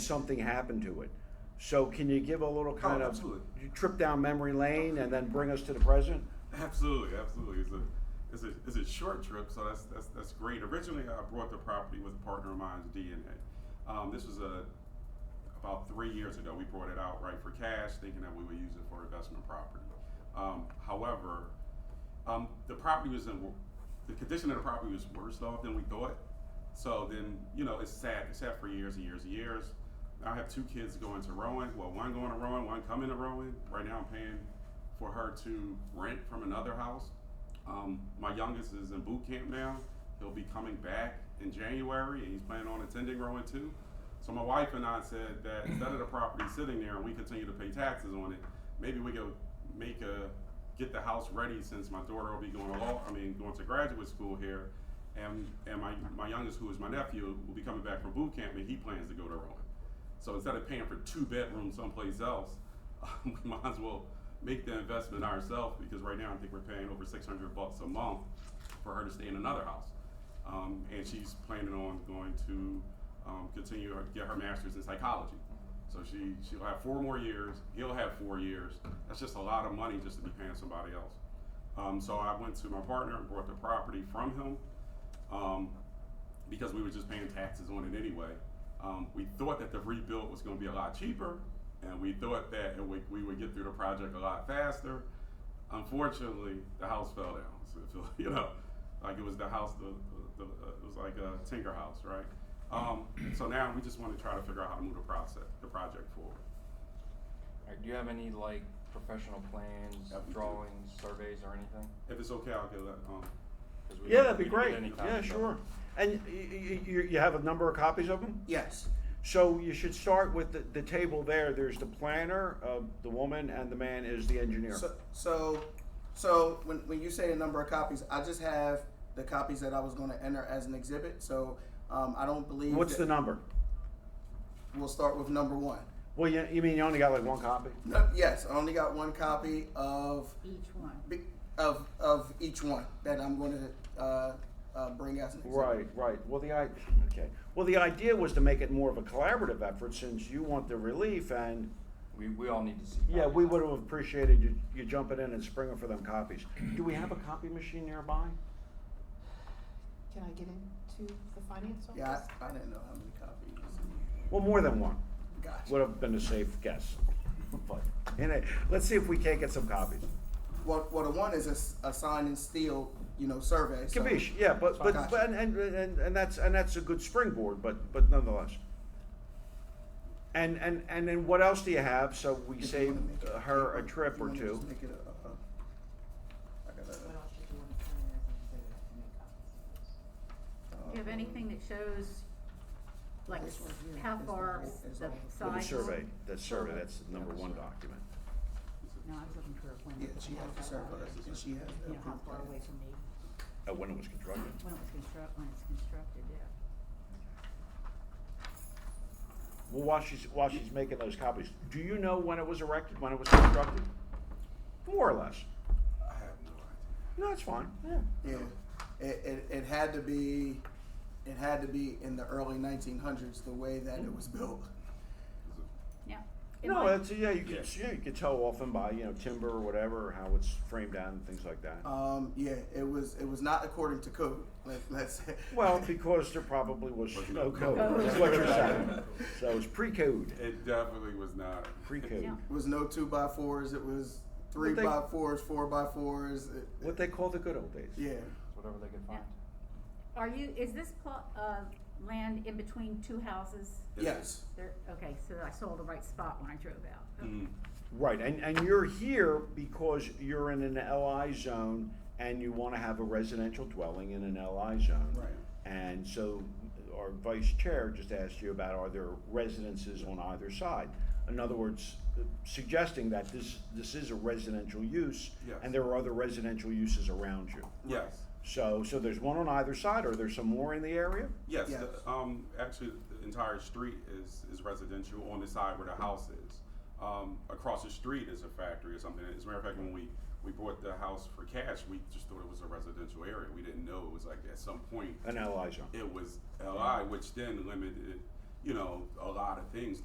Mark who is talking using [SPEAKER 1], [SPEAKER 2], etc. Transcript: [SPEAKER 1] something happened to it. So can you give a little kind of
[SPEAKER 2] absolutely.
[SPEAKER 1] you trip down memory lane and then bring us to the present?
[SPEAKER 2] Absolutely, absolutely. It's a it's a it's a short trip, so that's that's that's great. Originally, I bought the property with a partner of mine's DNA. Um, this was a about three years ago. We brought it out right for cash, thinking that we would use it for investment property. Um, however, um, the property was in the condition of the property was worse off than we thought. So then you know it's sad. It's sad for years and years and years. I have two kids going to Rowan. Well, one going to Rowan, one coming to Rowan. Right now, I'm paying for her to rent from another house. Um, my youngest is in boot camp now. He'll be coming back in January, and he's planning on attending Rowan too. So my wife and I said that instead of the property sitting there and we continue to pay taxes on it, maybe we could make a get the house ready since my daughter will be going to law. I mean, going to graduate school here, and and my my youngest, who is my nephew, will be coming back from boot camp, and he plans to go to Rowan. So instead of paying for two bedrooms someplace else, we might as well make the investment ourselves because right now I think we're paying over six hundred bucks a month for her to stay in another house. Um, and she's planning on going to um, continue her, get her master's in psychology. So she she'll have four more years. He'll have four years. That's just a lot of money just to be paying somebody else. Um, so I went to my partner and bought the property from him. Um, because we were just paying taxes on it anyway. Um, we thought that the rebuild was going to be a lot cheaper, and we thought that it would, we would get through the project a lot faster. Unfortunately, the house fell down. So it feel- you know, like it was the house, the, the, the it was like a tinker house, right? Um, so now we just want to try to figure out how to move the process, the project forward.
[SPEAKER 3] Alright, do you have any like professional plans,
[SPEAKER 2] Yeah, we do.
[SPEAKER 3] drawings, surveys, or anything?
[SPEAKER 2] If it's okay, I'll get that. Um,
[SPEAKER 3] 'Cause we
[SPEAKER 1] Yeah,
[SPEAKER 3] don't-
[SPEAKER 1] that'd be
[SPEAKER 3] we don't get
[SPEAKER 1] great.
[SPEAKER 3] any kind
[SPEAKER 1] Yeah,
[SPEAKER 3] of stuff.
[SPEAKER 1] sure. And you, you, you have a number of copies of them?
[SPEAKER 4] Yes.
[SPEAKER 1] So you should start with the, the table there. There's the planner, uh, the woman, and the man is the engineer.
[SPEAKER 4] So, so, so when, when you say the number of copies, I just have the copies that I was going to enter as an exhibit. So um, I don't believe.
[SPEAKER 1] What's the
[SPEAKER 4] that-
[SPEAKER 1] number?
[SPEAKER 4] We'll start with number one.
[SPEAKER 1] Well, you, you mean you only got like one copy?
[SPEAKER 4] No, yes, I only got one copy of
[SPEAKER 5] each one.
[SPEAKER 4] bi- of of each one that I'm going to uh, uh, bring as an exhibit.
[SPEAKER 1] Right, right. Well, the I, okay. Well, the idea was to make it more of a collaborative effort since you want the relief and,
[SPEAKER 3] We, we all need to see.
[SPEAKER 4] Oh,
[SPEAKER 1] yeah,
[SPEAKER 3] copies
[SPEAKER 1] we
[SPEAKER 3] of it.
[SPEAKER 1] would have appreciated you, you jumping in and springing for them copies. Do we have a copy machine nearby?
[SPEAKER 6] Can I get into the finance office?
[SPEAKER 4] Yeah, uh, I, I didn't know how many copies.
[SPEAKER 1] Well, more than one
[SPEAKER 4] Gotcha.
[SPEAKER 1] would have been a safe guess. But, anyway, let's see if we can't get some copies.
[SPEAKER 4] Well, well, the one is a, s- a sign and steel, you know, survey. so-
[SPEAKER 1] Kabish, yeah, but, but,
[SPEAKER 4] Gotcha.
[SPEAKER 1] but- and, and, and, and that's, and that's a good springboard, but, but nonetheless. And, and, and then what else do you have, so we
[SPEAKER 4] If you
[SPEAKER 1] save
[SPEAKER 4] wanna make it-
[SPEAKER 1] uh, her a
[SPEAKER 4] if you
[SPEAKER 1] trip or
[SPEAKER 4] wanna
[SPEAKER 1] two?
[SPEAKER 4] just make it a- a- a- I gotta-
[SPEAKER 7] What else should you want to put in as an exhibit to make copies of this?
[SPEAKER 5] Do you have anything that shows, like,
[SPEAKER 4] This one here
[SPEAKER 5] how
[SPEAKER 4] is the
[SPEAKER 5] far
[SPEAKER 4] whole- is
[SPEAKER 5] the
[SPEAKER 4] all- With the
[SPEAKER 1] With
[SPEAKER 5] side?
[SPEAKER 1] the survey, that survey, that's the number one document.
[SPEAKER 7] No, I was looking for a plan.
[SPEAKER 4] Yeah, she has the survey, and she has. the
[SPEAKER 7] You know, how
[SPEAKER 4] approved
[SPEAKER 7] far away
[SPEAKER 4] plans.
[SPEAKER 7] from the,
[SPEAKER 1] Uh, when it was constructed.
[SPEAKER 7] when it was construct, when it's constructed, yeah.
[SPEAKER 1] Well, while she's, while she's making those copies, do you know when it was erected, when it was constructed? More or less.
[SPEAKER 2] I have no idea.
[SPEAKER 1] No, that's fine, yeah.
[SPEAKER 4] Yeah, it, it, it had to be, it had to be in the early nineteen hundreds, the way that it was built.
[SPEAKER 2] It's a-
[SPEAKER 5] Yeah. It
[SPEAKER 1] No,
[SPEAKER 5] might-
[SPEAKER 1] that's, yeah, you
[SPEAKER 2] Yeah.
[SPEAKER 1] could, yeah, you could tell often by, you know, timber or whatever, how it's framed out and things like that.
[SPEAKER 4] Um, yeah, it was, it was not according to code, let, let's say.
[SPEAKER 1] Well, because there probably was
[SPEAKER 2] Was
[SPEAKER 1] no
[SPEAKER 2] no
[SPEAKER 1] code,
[SPEAKER 5] code.
[SPEAKER 1] is what you're saying. So it's pre-code,
[SPEAKER 2] It definitely was not.
[SPEAKER 1] pre-code.
[SPEAKER 5] Yeah.
[SPEAKER 4] It was no two by fours, it was three
[SPEAKER 1] they-
[SPEAKER 4] by fours, four by fours, it-
[SPEAKER 1] What they call the good old days.
[SPEAKER 4] yeah.
[SPEAKER 3] Whatever they could find.
[SPEAKER 5] Are you, is this pl- uh, land in between two houses?
[SPEAKER 4] Yes,
[SPEAKER 5] There, okay, so I saw the right spot when I drove out. Okay.
[SPEAKER 1] Mm-hmm.
[SPEAKER 2] Mm.
[SPEAKER 1] Right, and, and you're here because you're in an LI zone and you wanna have a residential dwelling in an LI zone.
[SPEAKER 4] Right.
[SPEAKER 1] And so our vice chair just asked you about are there residences on either side? In other words, suggesting that this, this is a residential use
[SPEAKER 2] Yes.
[SPEAKER 1] and there are other residential uses around you.
[SPEAKER 2] Yes.
[SPEAKER 1] So, so there's one on either side, or there's some more in the area?
[SPEAKER 2] Yes,
[SPEAKER 4] Yes.
[SPEAKER 2] the, um, actually, the entire street is, is residential on the side where the house is. Um, across the street is a factory or something. As a matter of fact, when we, we bought the house for cash, we just thought it was a residential area. We didn't know it was like at some point
[SPEAKER 1] An LI zone.
[SPEAKER 2] it was LI, which then limited, you know, a lot of things